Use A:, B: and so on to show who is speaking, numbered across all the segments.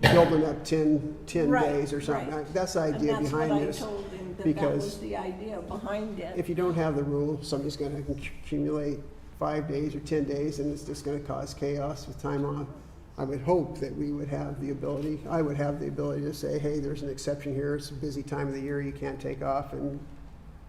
A: building up 10, 10
B: Right,
A: days or something.
B: right.
A: I- That's the
B: And
A: idea
B: that's what
A: behind
B: I
A: this.
B: told him, that that
A: because-
B: was the idea behind it.
A: If you don't have the rule, somebody's gonna accumulate five days or 10 days, and it's just gonna cause chaos with time off. I would hope that we would have the ability, I would have the ability to say, hey, there's an exception here, it's a busy time of the year, you can't take off, and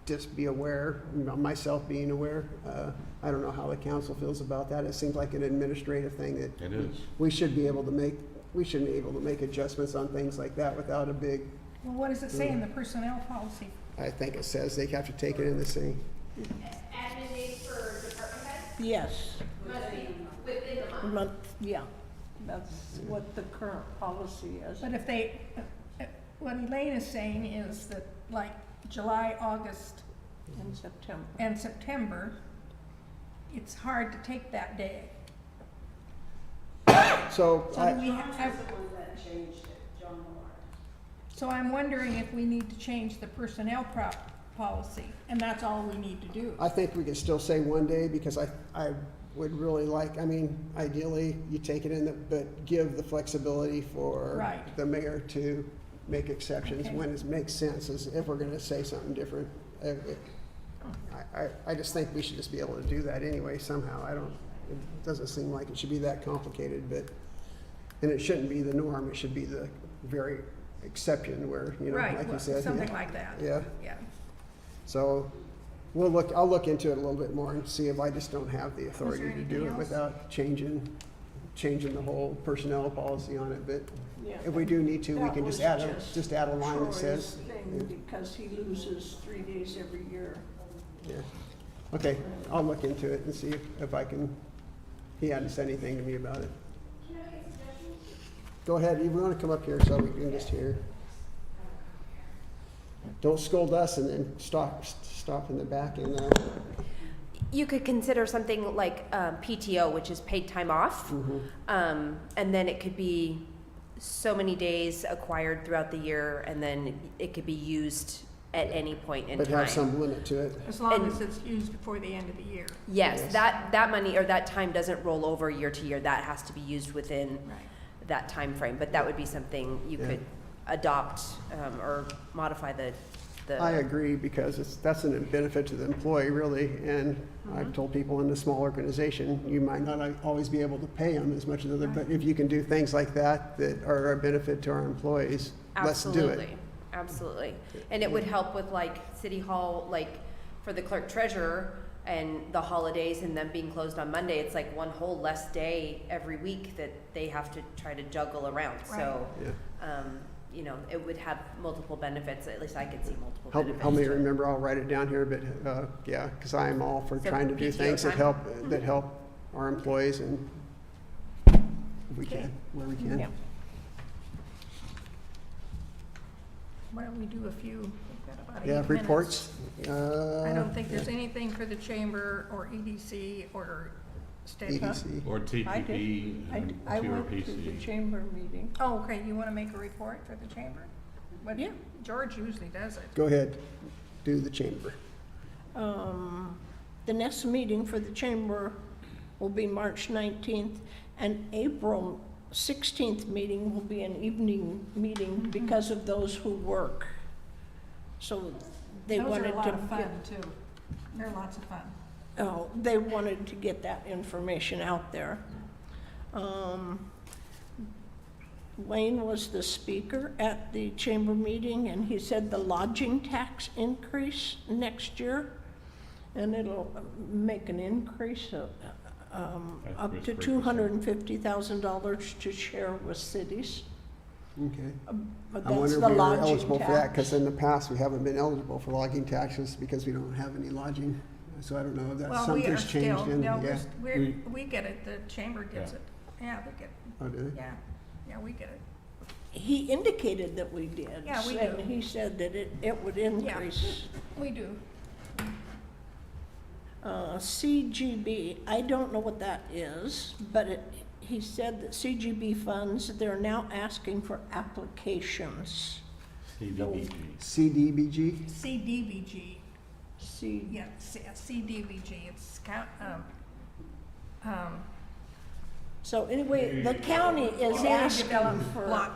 A: just be aware, you know, myself being aware. Uh, I don't know how the council feels about that. It seems like an administrative thing that
C: It is.
A: we should be able to make, we should be able to make adjustments on things like that without a big,
D: Well, what does it say in the personnel policy?
A: I think it says they have to take it in the same.
E: admin days for department heads
B: Yes,
E: must be within the month.
B: month, yeah, that's what the current policy is.
D: But if they, what Elaine is saying is that like July, August,
B: In September.
D: and September, it's hard to take that day.
A: So
D: So
A: I,
D: we have,
E: one that changed it, John Moore.
D: so I'm wondering if we need to change the personnel prop policy, and that's all we need to do.
A: I think we can still say one day because I, I would really like, I mean, ideally, you take it in, the- but give the flexibility for
D: Right.
A: the mayor to make exceptions
D: Okay.
A: when it makes sense, is if we're gonna say something different. Uh, it- I, I, I just think we should just be able to do that anyway somehow. I don't, it doesn't seem like it should be that complicated, but, and it shouldn't be the norm, it should be the very exception where, you know,
D: Right,
A: like you
D: well,
A: said.
D: something
A: yeah.
D: like that.
A: Yeah.
D: Yeah.
A: So we'll look, I'll look into it a little bit more and see if I just don't have the authority to do
D: anything
A: it
D: else?
A: without changing, changing the whole personnel policy on it, but
B: Yeah.
A: if we do need to, we
B: That
A: can just
B: was
A: add a,
B: just
A: just add a line that
B: Troy's
A: says.
B: thing, Because he loses three days every year.
A: yeah. Okay, I'll look into it and see if- if I can, he hadn't said anything to me about it.
E: Can I make a suggestion?
A: Go ahead, you wanna come up here so we can just hear. Don't scold us and then stop, stop in the back and, uh,
F: You could consider something like um, PTO, which is paid time off,
A: mhm.
F: um, and then it could be so many days acquired throughout the year, and then it could be used at any point in
A: but
F: time.
A: have some limit to it.
D: As long
F: And-
D: as it's used before the end of the year.
F: yes,
A: Yes.
F: that that money or that time doesn't roll over year to year. That has to be used within
D: Right.
F: that time frame. But that would be something you
A: Yeah.
F: could adopt um, or modify the the.
A: I agree, because it's, that's a benefit to the employee, really, and I've told people in a small organization, you might not always be able to pay them as much as other, but if you can do things like that that are a benefit to our employees, let's do
F: Absolutely,
A: it.
F: absolutely. And it would help with like city hall, like for the clerk treasurer and the holidays and them being closed on Monday, it's like one whole less day every week that they have to try to juggle around. So,
A: Yeah.
F: um, you know, it would have multiple benefits, at least I could see multiple
A: Help,
F: benefits.
A: help me
F: to it.
A: remember, I'll write it down here, but, uh, yeah, because I am all for
F: So
A: trying to do
F: PTO
A: things that
F: time?
A: help, that help our employees and if we can, where we
B: Yeah.
A: can.
D: Why don't we do a few, we've got about eight
A: Yeah,
D: minutes.
A: reports,
D: I
A: uh,
D: don't think there's anything for the chamber or EDC or
A: E
D: state.
A: EDC.
C: Or
B: I did.
C: TPP
B: I,
C: and
B: I went to the
C: TRPC.
B: chamber meeting.
D: Oh, okay, you wanna make a report for the chamber? But
B: Yeah.
D: George usually does it.
A: Go ahead, do the chamber.
B: Um, The next meeting for the chamber will be March 19th, and April 16th meeting will be an evening meeting because of those who work. So they wanted to.
D: too. They're lots of fun.
B: Oh, they wanted to get that information out there. Um, Wayne was the speaker at the chamber meeting, and he said the lodging tax increase next year, and it'll make an increase of, um,
C: I think
B: up
C: it's
B: to
C: 3%.
B: two hundred and fifty thousand dollars to share with cities,
A: Okay.
B: but
A: I
B: that's
A: wonder
B: the
A: if we were
B: lodging
A: eligible for that, because
B: tax.
A: in the past, we haven't been eligible for lodging taxes because we don't have any lodging. So I don't know if that's,
D: Well, we are
A: something's
D: still,
A: changed in,
D: no,
A: yeah.
D: we, we get it, the chamber gets it. Yeah, they get,
A: Oh, do they?
D: yeah, yeah, we get it.
B: He indicated that we did.
D: Yeah, we
B: And
D: do.
B: he said that it, it would increase.
D: We do.
B: Uh, CGB, I don't know what that is, but it, he said that CGB funds, they're now asking for applications.
C: CDBG.
A: CDBG?
D: CDBG,
B: See,
D: yeah, C- CDBG, it's count, um, um.
B: so anyway, the county is
D: Community
B: asking
D: Development
B: for.
D: Block